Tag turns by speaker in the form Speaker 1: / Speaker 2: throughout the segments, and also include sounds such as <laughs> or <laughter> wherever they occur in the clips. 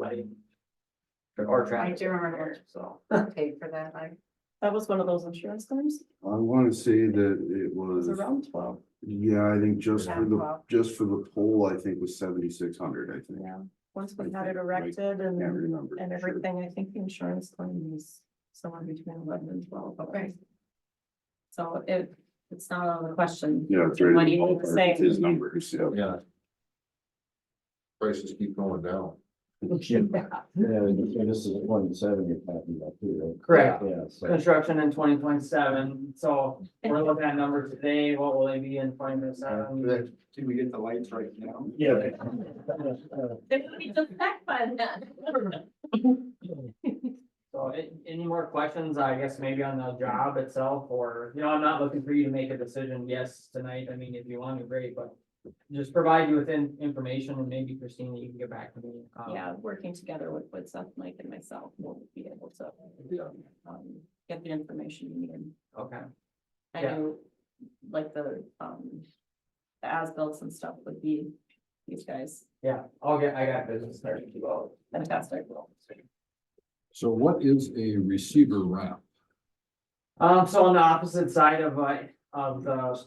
Speaker 1: lighting. Or- Or
Speaker 2: I
Speaker 1: traffic.
Speaker 2: do remember
Speaker 3: <laughs>
Speaker 1: So,
Speaker 2: paid for that, I,
Speaker 3: That was one of those insurance claims,
Speaker 4: I wanna say that it
Speaker 3: it was
Speaker 4: was,
Speaker 3: around twelve,
Speaker 4: yeah, I think just for
Speaker 2: Around
Speaker 4: the,
Speaker 2: twelve.
Speaker 4: just for the poll, I think was seventy-six hundred, I think.
Speaker 3: yeah, once we had
Speaker 4: I
Speaker 3: it
Speaker 4: think, right,
Speaker 3: erected and,
Speaker 4: Can't remember.
Speaker 3: and
Speaker 4: for sure.
Speaker 3: everything, I think the insurance claim was somewhere between eleven and twelve, okay.
Speaker 2: Right.
Speaker 3: So it, it's not out of the question,
Speaker 4: Yeah, it's right.
Speaker 3: What do
Speaker 4: in the
Speaker 3: you
Speaker 4: ballpark
Speaker 3: say?
Speaker 4: with His numbers, yeah.
Speaker 5: Yeah. Prices keep going down.
Speaker 6: Yeah, and so this is one seven you're talking about too,
Speaker 1: correct,
Speaker 6: right? Yeah, so
Speaker 1: construction in twenty twenty-seven, so
Speaker 2: <laughs>
Speaker 1: we're looking at numbers today, what will they be in twenty twenty-seven?
Speaker 5: Do we get the lights right now?
Speaker 6: Yeah.
Speaker 1: So, a- any more questions, I guess, maybe on the job itself, or, you know, I'm not looking for you to make a decision, yes, tonight, I mean, if you want to, great, but. Just provide you with in- information, and maybe Christina, you can get back to me. um,
Speaker 3: <laughs> yeah, working together with, with Seth, Mike and myself, we'll be able to. um, Get the information you need.
Speaker 1: Okay,
Speaker 3: I
Speaker 1: Yeah.
Speaker 3: know, like the, um, the as-bills and stuff would be these guys,
Speaker 1: yeah, I'll get, I got business starting to go.
Speaker 3: fantastic.
Speaker 5: So what is a receiver wrap?
Speaker 1: Um, so on the opposite side of, uh, of the,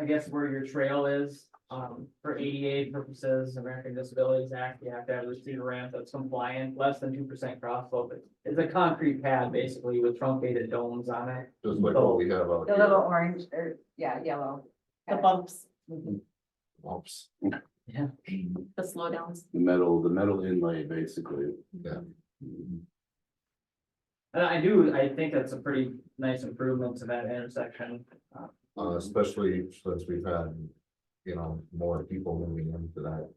Speaker 1: I guess where your trail is, um, for ADA purposes, American Disabilities Act, you have to have a receiver ramp that's compliant, less than two percent cross slope. It's- It's a concrete pad basically with truncated domes on it.
Speaker 5: Just like what we have out
Speaker 2: the
Speaker 5: here.
Speaker 2: little orange, or, yeah, yellow.
Speaker 3: The bumps,
Speaker 5: Whoops.
Speaker 1: Yeah.
Speaker 3: the slowdowns,
Speaker 4: The metal, the metal inlay, basically.
Speaker 5: Yeah.
Speaker 1: And I do, I think that's a pretty nice improvement to that intersection.
Speaker 5: Uh, especially since we've had, you know, more people moving into that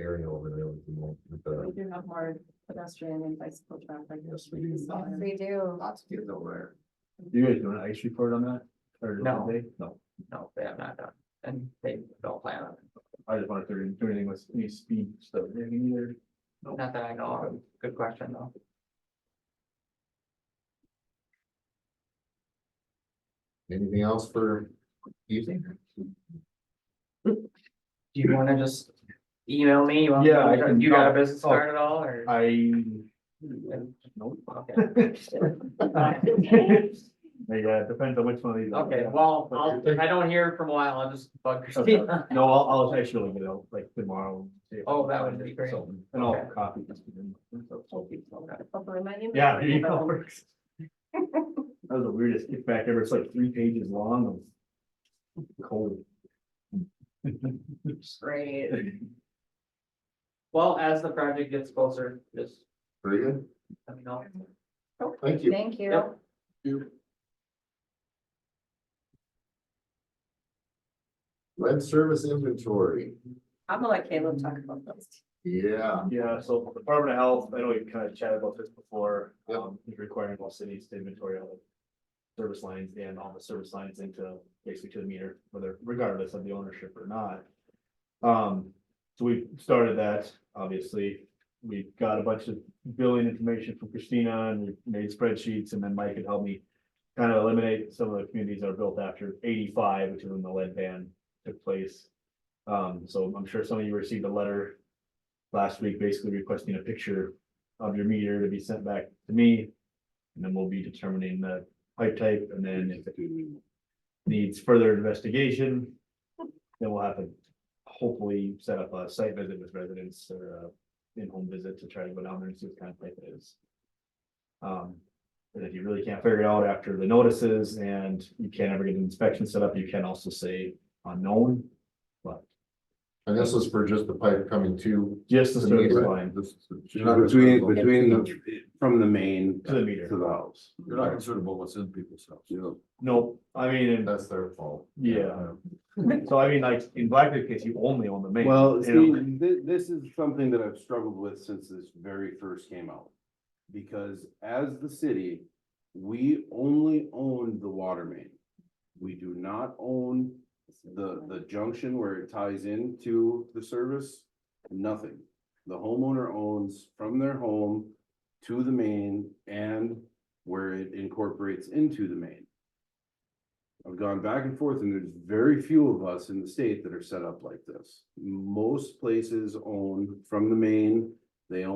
Speaker 5: area over there with the, mo- with
Speaker 3: we
Speaker 5: the,
Speaker 3: do have more pedestrian and bicycle traffic.
Speaker 5: Yes, we do.
Speaker 3: So,
Speaker 2: Yes, we do.
Speaker 5: lots of kids over
Speaker 6: You guys doing an ice report on that? Or did
Speaker 1: No.
Speaker 6: they? No,
Speaker 1: No, they have not done, and they don't plan on it,
Speaker 6: I just wondered if they're doing anything with any speed stuff, anything either.
Speaker 1: not that I know of, good question though.
Speaker 5: there. Anything else for evening?
Speaker 1: Do you wanna just email me? You want-
Speaker 6: Yeah, I can-
Speaker 1: You got a business
Speaker 6: oh.
Speaker 1: card at all, or?
Speaker 6: I. <laughs>
Speaker 1: Okay.
Speaker 6: Yeah, depends on which one of these.
Speaker 1: Okay, well, I'll, if I don't hear from a while, I'll just bug
Speaker 6: Okay.
Speaker 1: Christina. <laughs>
Speaker 6: <laughs> No, I'll, I'll actually, you know, like tomorrow. see if I
Speaker 1: Oh,
Speaker 6: can
Speaker 1: that
Speaker 6: find
Speaker 1: would be
Speaker 6: it,
Speaker 1: great.
Speaker 6: so- And I'll
Speaker 1: Okay.
Speaker 6: copy. this to them, so-
Speaker 3: Hopefully my email.
Speaker 6: Yeah, <laughs> there you go. That was the weirdest kickback ever. It's like three pages long. of
Speaker 1: <laughs>
Speaker 6: Cold. <laughs>
Speaker 2: Great.
Speaker 1: Well, as the project gets closer, just
Speaker 5: Very good.
Speaker 1: let me know.
Speaker 5: Thank you.
Speaker 2: Thank you.
Speaker 1: Yep.
Speaker 5: Lead service inventory.
Speaker 3: I'm gonna let Caleb talk about those.
Speaker 5: Yeah.
Speaker 6: Yeah, so Department of Health, I know we kind of chatted about this before,
Speaker 5: Yep.
Speaker 6: um, is requiring all cities to inventory all the service lines and all the service lines into, basically to the meter, whether regardless of the ownership or not. Um, so we started that, obviously, we've got a bunch of billing information from Christina and we made spreadsheets and then Mike had helped me kind of eliminate some of the communities that are built after eighty-five, which is when the lead ban took place. Um, so I'm sure some of you received a letter last week basically requesting a picture of your meter to be sent back to me. And then we'll be determining the pipe type and then if it needs further investigation, then we'll have to hopefully set up a site visit with residents or a in-home visit to try to go down there and see what kind of pipe it is. Um, and if you really can't figure it out after the notices and you can't ever get an inspection set up, you can also say unknown.
Speaker 5: And this is for just the pipe coming to.
Speaker 6: Just the
Speaker 5: the
Speaker 6: service
Speaker 5: meter.
Speaker 6: line
Speaker 5: This- you're not
Speaker 4: Between,
Speaker 5: concerned about-
Speaker 4: between the, from the main
Speaker 6: to
Speaker 4: to
Speaker 6: the meter.
Speaker 4: the house.
Speaker 5: You're not concerned about what's in people's house.
Speaker 4: Yeah.
Speaker 6: No, I mean, and
Speaker 5: That's their fault.
Speaker 6: Yeah. So I mean, like, in Blackbeard case, you only own the main.
Speaker 4: Well,
Speaker 6: you
Speaker 4: see,
Speaker 6: know?
Speaker 4: thi- this is something that I've struggled with since this very first came out. Because as the city, we only own the water main. We do not own the, the junction where it ties into the service, nothing. The homeowner owns from their home to the main and where it incorporates into the main. I've gone back and forth and there's very few of us in the state that are set up like this. Most places own from the main, they own.